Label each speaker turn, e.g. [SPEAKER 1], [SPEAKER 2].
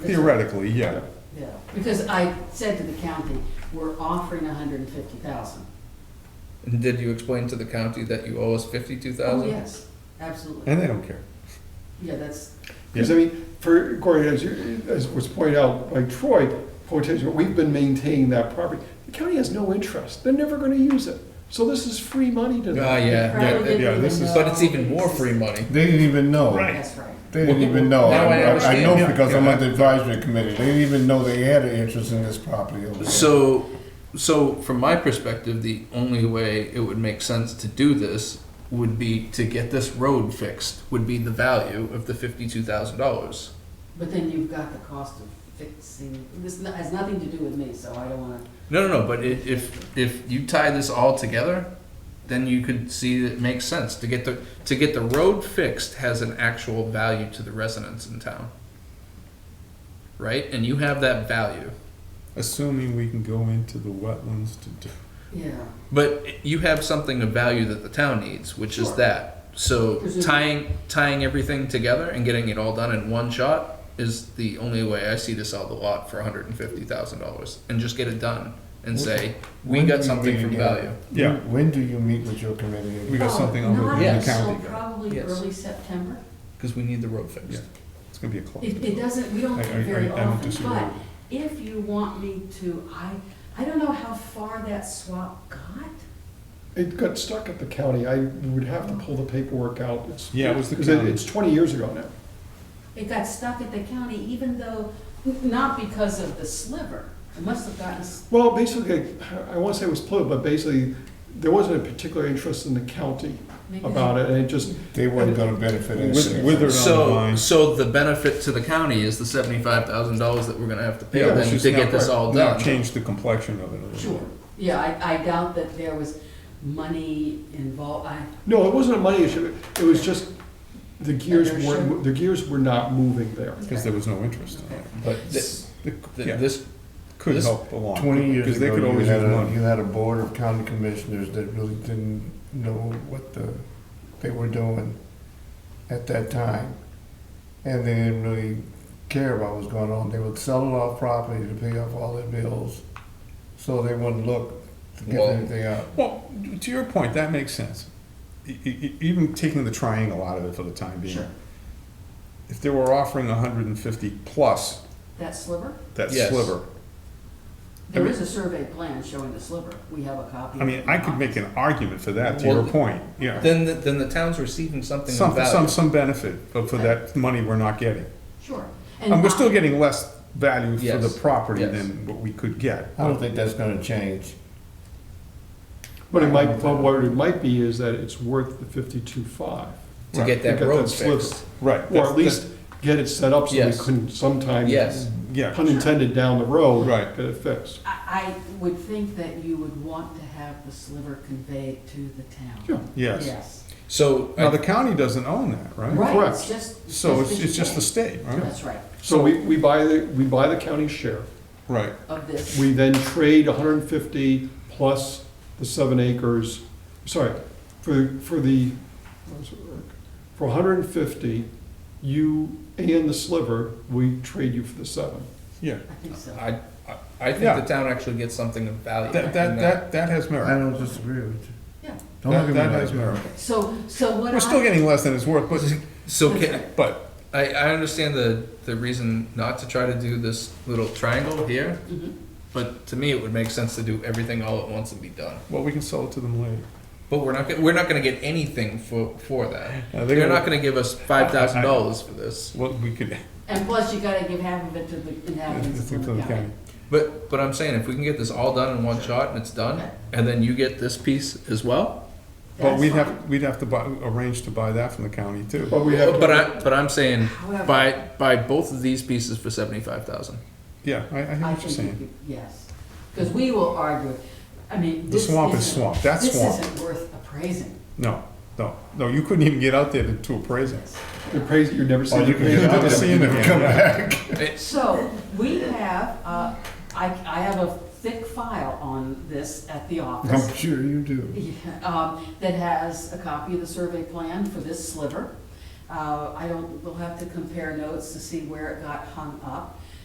[SPEAKER 1] Theoretically, yeah.
[SPEAKER 2] Yeah, because I said to the county, we're offering a hundred and fifty thousand.
[SPEAKER 3] And did you explain to the county that you owe us fifty-two
[SPEAKER 2] Oh,
[SPEAKER 3] thousand?
[SPEAKER 2] yes, absolutely.
[SPEAKER 1] And they don't care.
[SPEAKER 2] Yeah, that's,
[SPEAKER 4] Because I mean, for, Corey, as you, as was pointed out by Troy, potentially, we've been maintaining that property. The county has no interest. They're never gonna use it. So this is free money to
[SPEAKER 3] Ah,
[SPEAKER 4] them.
[SPEAKER 3] yeah.
[SPEAKER 2] probably
[SPEAKER 1] yeah,
[SPEAKER 2] didn't
[SPEAKER 1] yeah,
[SPEAKER 2] even
[SPEAKER 1] this is-
[SPEAKER 2] know.
[SPEAKER 3] But it's even more free money.
[SPEAKER 5] They didn't even know.
[SPEAKER 1] Right.
[SPEAKER 2] That's right.
[SPEAKER 5] They didn't even know.
[SPEAKER 3] Now I understand.
[SPEAKER 5] know because I'm
[SPEAKER 1] Yeah.
[SPEAKER 5] on the advisory committee. They didn't even know they had an interest in this property over there.
[SPEAKER 3] So, so from my perspective, the only way it would make sense to do this would be to get this road fixed, would be the value of the fifty-two thousand dollars.
[SPEAKER 2] But then you've got the cost of fixing, this n- has nothing to do with me, so I don't wanna,
[SPEAKER 3] No, no, no, but i- if, if you tie this all together, then you could see that it makes sense to get the, to get the road fixed has an actual value to the residents in town. Right? And you have that value.
[SPEAKER 1] Assuming we can go into the wetlands to do.
[SPEAKER 2] yeah.
[SPEAKER 3] But you have something of value that the town needs, which is
[SPEAKER 2] Sure.
[SPEAKER 3] that. So
[SPEAKER 2] Presumably.
[SPEAKER 3] tying tying everything together and getting it all done in one shot is the only way I see to sell the lot for one hundred and fifty thousand dollars and just get it done and say we
[SPEAKER 5] When do
[SPEAKER 3] got
[SPEAKER 5] you
[SPEAKER 3] something
[SPEAKER 5] meet
[SPEAKER 3] from
[SPEAKER 5] again?
[SPEAKER 3] value.
[SPEAKER 1] Yeah.
[SPEAKER 5] When do you meet with your committee?
[SPEAKER 1] We got
[SPEAKER 2] Oh,
[SPEAKER 1] something on the
[SPEAKER 2] not
[SPEAKER 1] the
[SPEAKER 3] Yes.
[SPEAKER 2] until
[SPEAKER 1] county. guy.
[SPEAKER 2] Probably
[SPEAKER 3] Yes.
[SPEAKER 2] early September.
[SPEAKER 3] Because we need the road fixed.
[SPEAKER 1] Yeah. It's gonna be a club.
[SPEAKER 2] It, it doesn't, we don't
[SPEAKER 1] I-
[SPEAKER 2] meet
[SPEAKER 1] I-
[SPEAKER 2] very
[SPEAKER 1] I- I don't
[SPEAKER 2] often,
[SPEAKER 1] disagree.
[SPEAKER 2] but if you want me to, I, I don't know how far that swap got.
[SPEAKER 4] It got stuck at the county. I would have to pull the paperwork out. It's-
[SPEAKER 1] Yeah, it was the
[SPEAKER 4] 'cause
[SPEAKER 1] county.
[SPEAKER 4] It's twenty years ago now.
[SPEAKER 2] It got stuck at the county even though, not because of the sliver. It must have gotten, s-
[SPEAKER 4] Well, basically, I want to say it was political, but basically, there wasn't a particular interest in the county
[SPEAKER 2] maybe.
[SPEAKER 4] about it, and it just,
[SPEAKER 5] They weren't gonna benefit in
[SPEAKER 1] With-
[SPEAKER 5] it.
[SPEAKER 1] with or-
[SPEAKER 3] So
[SPEAKER 1] online.
[SPEAKER 3] so the benefit to the county is the seventy five thousand dollars that we're gonna have to pay
[SPEAKER 1] Yeah,
[SPEAKER 3] them
[SPEAKER 1] it's
[SPEAKER 3] to
[SPEAKER 1] just
[SPEAKER 3] get
[SPEAKER 1] now-
[SPEAKER 3] this all
[SPEAKER 1] now
[SPEAKER 3] done.
[SPEAKER 1] Change the complexion of it a little.
[SPEAKER 2] Sure, yeah, I, I doubt that there was money involved, I,
[SPEAKER 4] no, it wasn't a money issue. It was just the gears
[SPEAKER 2] Inertia.
[SPEAKER 4] weren't, the gears were not moving there.
[SPEAKER 1] Because there was no interest in
[SPEAKER 2] okay.
[SPEAKER 1] it.
[SPEAKER 3] But thi-
[SPEAKER 1] It
[SPEAKER 3] thi-
[SPEAKER 1] yeah,
[SPEAKER 3] this
[SPEAKER 1] could
[SPEAKER 3] this-
[SPEAKER 1] help along.
[SPEAKER 5] Twenty years
[SPEAKER 1] Because they
[SPEAKER 5] ago,
[SPEAKER 1] could
[SPEAKER 5] you
[SPEAKER 1] always
[SPEAKER 5] had
[SPEAKER 1] use
[SPEAKER 5] a, you
[SPEAKER 1] money.
[SPEAKER 5] had a board of county commissioners that really didn't know what the, they were doing at that time. And they didn't really care about what was going on. They would sell it off property to pay off all their bills. So they wouldn't look to get
[SPEAKER 3] Well-
[SPEAKER 5] anything out.
[SPEAKER 1] Well, to your point, that makes sense. E- e- e- Even taking the triangle out of it for the time being.
[SPEAKER 2] Sure.
[SPEAKER 1] If they were offering hundred and fifty plus
[SPEAKER 2] that sliver?
[SPEAKER 1] that
[SPEAKER 3] Yes.
[SPEAKER 1] sliver,
[SPEAKER 2] There
[SPEAKER 1] mean-
[SPEAKER 2] is a survey plan showing the sliver, we have a copy.
[SPEAKER 1] I mean, I could make an argument for that, to
[SPEAKER 3] Well,
[SPEAKER 1] your point, yeah.
[SPEAKER 3] then the, then the town's receiving something of
[SPEAKER 1] Some,
[SPEAKER 3] value.
[SPEAKER 1] some, some benefit for for that money we're not getting.
[SPEAKER 2] Sure.
[SPEAKER 1] And we're still
[SPEAKER 2] not-
[SPEAKER 1] getting less value for the
[SPEAKER 3] Yes,
[SPEAKER 1] property
[SPEAKER 3] yes.
[SPEAKER 1] than what we could get.
[SPEAKER 5] I don't think that's gonna change.
[SPEAKER 4] But it might, but what it might be is that it's worth the fifty-two five.
[SPEAKER 3] to get that road fixed.
[SPEAKER 1] Right.
[SPEAKER 4] Or
[SPEAKER 1] that's-
[SPEAKER 4] at least get it set up so we
[SPEAKER 3] Yes.
[SPEAKER 4] couldn't sometime.
[SPEAKER 3] Yes.
[SPEAKER 1] Yeah,
[SPEAKER 4] Pun intended, down the road.
[SPEAKER 1] Right.
[SPEAKER 4] Get it fixed.
[SPEAKER 2] I, I would think that you would want to have the sliver conveyed to the town.
[SPEAKER 4] Sure.
[SPEAKER 1] yes.
[SPEAKER 2] Yes.
[SPEAKER 3] So I
[SPEAKER 1] Now, the county doesn't own that, right?
[SPEAKER 2] Right, it's
[SPEAKER 4] Correct.
[SPEAKER 2] just.
[SPEAKER 1] So it's, it's just the
[SPEAKER 2] the.
[SPEAKER 1] state, right?
[SPEAKER 2] That's right,
[SPEAKER 4] So we, we buy the, we buy the county share.
[SPEAKER 1] Right.
[SPEAKER 2] of this.
[SPEAKER 4] We then trade hundred and fifty plus the seven acres, sorry, for, for the, what was it, Eric? for hundred and fifty, you and the sliver, we trade you for the seven.
[SPEAKER 1] Yeah.
[SPEAKER 2] I think so.
[SPEAKER 3] I, I- I think
[SPEAKER 1] Yeah.
[SPEAKER 3] the town actually gets something of value.
[SPEAKER 1] That,
[SPEAKER 3] in
[SPEAKER 1] that, that, that has
[SPEAKER 5] I
[SPEAKER 1] merit.
[SPEAKER 5] don't disagree with you.
[SPEAKER 2] Yeah.
[SPEAKER 5] Don't
[SPEAKER 1] That,
[SPEAKER 5] look at me
[SPEAKER 1] that
[SPEAKER 5] like
[SPEAKER 1] has
[SPEAKER 5] that.
[SPEAKER 1] merit.
[SPEAKER 2] So, so what I.
[SPEAKER 1] We're still getting less than it's worth, but,
[SPEAKER 3] So can,
[SPEAKER 1] but,
[SPEAKER 3] I, I understand the, the reason not to try to do this little triangle here,
[SPEAKER 2] Mhm.
[SPEAKER 3] but to me, it would make sense to do everything all at once and be done.
[SPEAKER 1] well, we can sell it to them later.
[SPEAKER 3] But we're not, go- we're not gonna get anything for, for that.
[SPEAKER 1] Uh,
[SPEAKER 3] They're
[SPEAKER 1] gonna-
[SPEAKER 3] not gonna give us five thousand dollars for this.
[SPEAKER 1] Well, we could,
[SPEAKER 2] And plus you gotta give half of it to the inhabitants
[SPEAKER 1] it's
[SPEAKER 2] of
[SPEAKER 1] up to
[SPEAKER 2] Plymouth
[SPEAKER 1] the
[SPEAKER 2] County.
[SPEAKER 1] county.
[SPEAKER 3] But, but I'm saying, if we can get this all done in one shot and it's done, and then you get this piece as well,
[SPEAKER 1] But
[SPEAKER 2] That's
[SPEAKER 1] we'd
[SPEAKER 2] fine.
[SPEAKER 1] have, we'd have to buy, arrange to buy that from the county too.
[SPEAKER 4] But we have. to-
[SPEAKER 3] but I, but I'm saying,
[SPEAKER 2] However-
[SPEAKER 3] buy, buy both of these pieces for seventy-five thousand.
[SPEAKER 1] Yeah, I, I hear
[SPEAKER 2] I
[SPEAKER 1] what you're
[SPEAKER 2] think, you
[SPEAKER 1] saying.
[SPEAKER 2] could- yes, because we will argue, I mean,
[SPEAKER 1] The
[SPEAKER 2] this
[SPEAKER 1] swamp is
[SPEAKER 2] isn't-
[SPEAKER 1] swamp, that's swamp.
[SPEAKER 2] This isn't worth appraising,
[SPEAKER 1] No, no, no, you couldn't even get out there to- to appraise it.
[SPEAKER 2] yes.
[SPEAKER 4] You're praising, you're never
[SPEAKER 5] Oh,
[SPEAKER 4] seeing.
[SPEAKER 5] you can get out
[SPEAKER 1] Never
[SPEAKER 5] there,
[SPEAKER 1] seen
[SPEAKER 5] you
[SPEAKER 1] it
[SPEAKER 5] never
[SPEAKER 1] again,
[SPEAKER 5] come
[SPEAKER 1] yeah.
[SPEAKER 5] back.
[SPEAKER 2] So, we have, uh, I, I have a thick file on this at the office.
[SPEAKER 5] I'm sure you do.
[SPEAKER 2] Yeah, um, that has a copy of the survey plan for this sliver. Uh, I don't, we'll have to compare notes to see where it got hung up.